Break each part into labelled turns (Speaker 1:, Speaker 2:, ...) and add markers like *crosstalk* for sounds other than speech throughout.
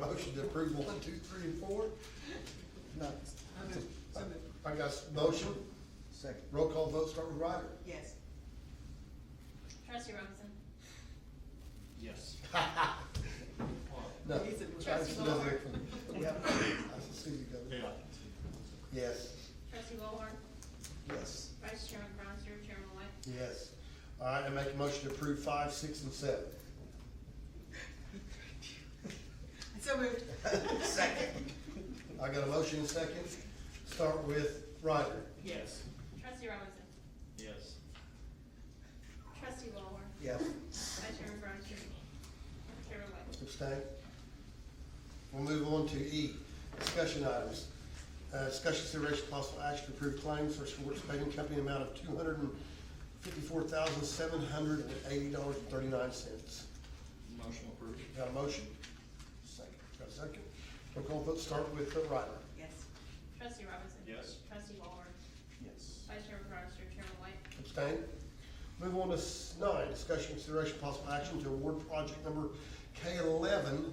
Speaker 1: motion to approve one, two, three, and four? No.
Speaker 2: moved. So moved.
Speaker 1: I got a motion,
Speaker 3: Second.
Speaker 1: roll call vote, start with Ryder.
Speaker 2: Yes.
Speaker 4: Trustee Robinson.
Speaker 5: Yes.
Speaker 1: *laughs* No.
Speaker 2: He's a-
Speaker 1: I just know that from-
Speaker 3: Yep.
Speaker 1: I see you go. Yes,
Speaker 4: Trustee Ballhorn.
Speaker 3: Yes.
Speaker 4: Vice Chairman Cronster. Chairman White.
Speaker 1: yes. All right, I make a motion to approve five, six, and seven.
Speaker 2: So moved.
Speaker 3: Second.
Speaker 1: I got a motion and second, start with Ryder.
Speaker 2: Yes.
Speaker 4: Trustee Robinson.
Speaker 5: Yes.
Speaker 4: Trustee Ballhorn.
Speaker 3: Yes.
Speaker 4: Vice Chairman Cronster. Chairman White.
Speaker 1: Abstain. We'll move on to E, discussion items. Uh, discussion consideration possible action to approve claims for Schwartz Paving Company amount of two hundred and fifty-four thousand, seven hundred and eighty dollars and thirty-nine cents.
Speaker 5: Motion approved.
Speaker 1: Got a motion? Second. Got a second? Roll call vote, start with uh, Ryder.
Speaker 2: Yes.
Speaker 4: Trustee Robinson.
Speaker 5: Yes.
Speaker 4: Trustee Ballhorn.
Speaker 3: Yes.
Speaker 4: Vice Chairman Cronster. Chairman White.
Speaker 1: Abstain. Move on to s- nine, discussion consideration possible action to award project number K eleven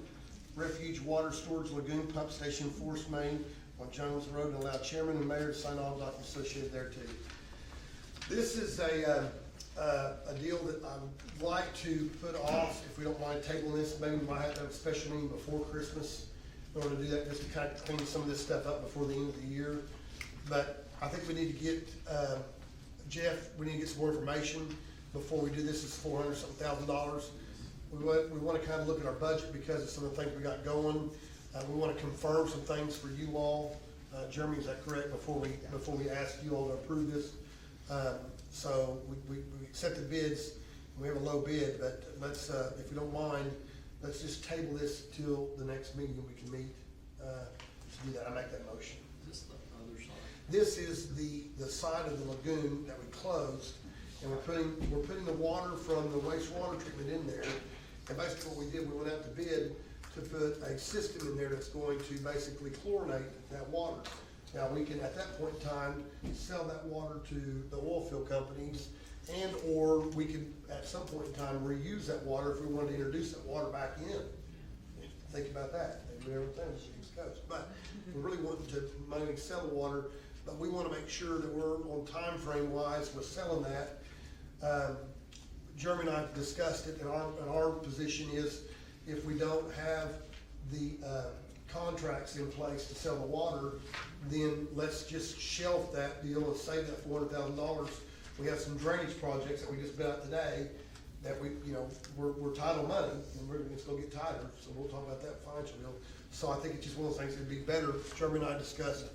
Speaker 1: refuge water storage lagoon pump station Force Main on Jones Road and allow chairman and mayor to sign all documents associated thereto. This is a, uh, uh, a deal that I'd like to put off, if we don't mind tabling this, maybe we might have to have a special meeting before Christmas in order to do that, just to kind of clean some of this stuff up before the end of the year. But I think we need to get, uh, Jeff, we need to get some more information before we do this, it's four hundred something thousand dollars. We want, we want to kind of look at our budget because of some of the things we got going. Uh, we want to confirm some things for you all. Uh, Jeremy, is that correct, before we, before we ask you all to approve this? Um, so we, we, we accept the bids, we have a low bid, but let's, uh, if you don't mind, let's just table this till the next meeting and we can meet, uh, to do that. I make that motion.
Speaker 5: Is this the other side?
Speaker 1: This is the, the side of the lagoon that we closed, and we're putting, we're putting the water from the wastewater treatment in there. And basically what we did, we went out to bid to put a system in there that's going to basically chlorinate that water. Now, we can, at that point in time, sell that water to the oil field companies, and/or we could, at some point in time, reuse that water if we wanted to introduce that water back in. Think about that, they do everything on the East Coast, but we really want to mainly sell the water, but we wanna make sure that we're on time frame wise with selling that. Um, Jeremy and I have discussed it, and our, and our position is if we don't have the, uh, contracts in place to sell the water, then let's just shelf that deal and save that four hundred thousand dollars. We have some drainage projects that we just bid out today, that we, you know, we're, we're title money, and we're, it's gonna get tighter, so we'll talk about that financial deal. So I think it's just one of those things, it'd be better, Jeremy and I discussed,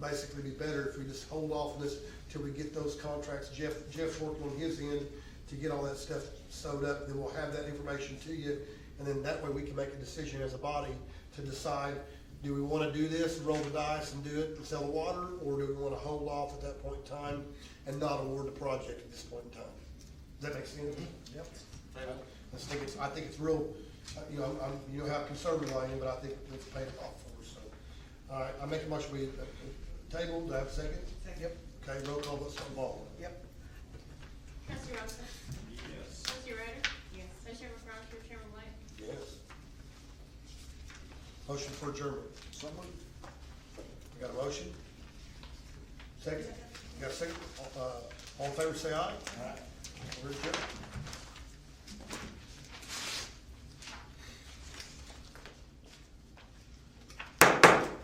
Speaker 1: basically be better if we just hold off on this till we get those contracts, Jeff, Jeff's working on his end to get all that stuff sewed up, then we'll have that information to you, and then that way we can make a decision as a body to decide, do we wanna do this, roll the dice and do it and sell the water, or do we wanna hold off at that point in time and not award the project at this point in time? Does that make sense? Yep.
Speaker 5: Table.
Speaker 1: I think it's, I think it's real, uh, you know, I'm, you know how conservative I am, but I think it's paid off for us, so. All right, I make a motion, we, uh, uh, table, do I have a second?
Speaker 2: Second.
Speaker 3: Yep.
Speaker 1: Okay, roll call, let's involve.
Speaker 3: Yep.
Speaker 4: Trustee Robinson.
Speaker 5: Yes.
Speaker 4: Trustee Ryder.
Speaker 2: Yes.
Speaker 4: Vice Chairman Cronster. Chairman White.
Speaker 1: Yes. Motion for adjournment.
Speaker 3: Someone?
Speaker 1: We got a motion? Second? You got a second? Uh, all in favor, say aye. Aye. We're adjourned.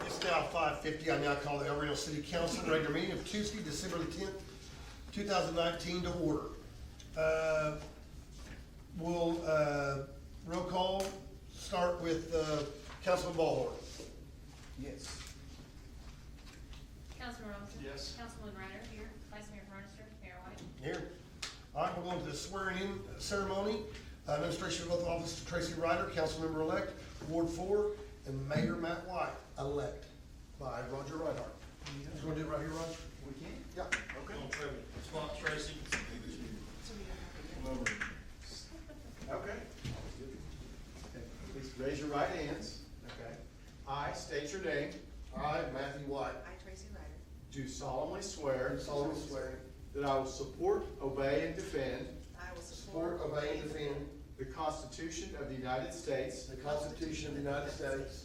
Speaker 1: It's now five fifty. I now call the El Reno City Council regular meeting of Tuesday, December the tenth, two thousand nineteen to order. Uh, we'll, uh, roll call, start with, uh, Councilman Ballhorn.
Speaker 3: Yes.
Speaker 4: Councilman Robinson.
Speaker 5: Yes.
Speaker 4: Councilman Ryder. Here. Vice Mayor Cronster. Mayor White.
Speaker 1: Here. All right, we're going to the swearing-in ceremony. Uh, Administration of oath of office to Tracy Ryder, council member-elect, Ward Four, and Mayor Matt White, elect by Roger Reinhardt. You want to do it right here, Roger?
Speaker 3: We can?
Speaker 1: Yeah.
Speaker 5: Okay. On table. Spot Tracy.
Speaker 3: Okay. Please raise your right hands. Okay. I state your name.
Speaker 1: I, Matthew White,
Speaker 2: I, Tracy Ryder,
Speaker 3: Do solemnly swear.
Speaker 1: do solemnly swear
Speaker 3: That I will support, obey, and defend
Speaker 2: I will
Speaker 1: support,
Speaker 2: support.
Speaker 1: obey, and defend
Speaker 3: the Constitution of the United States.
Speaker 1: the Constitution of the United States